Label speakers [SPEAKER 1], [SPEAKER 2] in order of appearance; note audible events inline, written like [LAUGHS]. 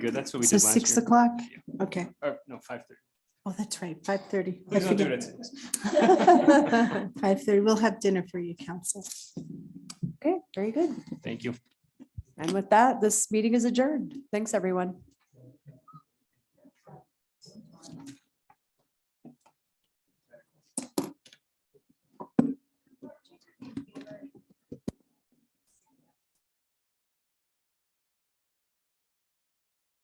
[SPEAKER 1] Good, that's what we
[SPEAKER 2] So
[SPEAKER 1] did last year.
[SPEAKER 2] six o'clock?
[SPEAKER 1] Yeah.
[SPEAKER 2] Okay.
[SPEAKER 1] Or, no, five thirty.
[SPEAKER 2] Oh, that's right, five thirty.
[SPEAKER 1] Please don't do it at six.
[SPEAKER 2] [LAUGHS] Five thirty. We'll have dinner for you, council.
[SPEAKER 3] Okay, very good.
[SPEAKER 1] Thank you.
[SPEAKER 3] And with that, this meeting is adjourned. Thanks, everyone.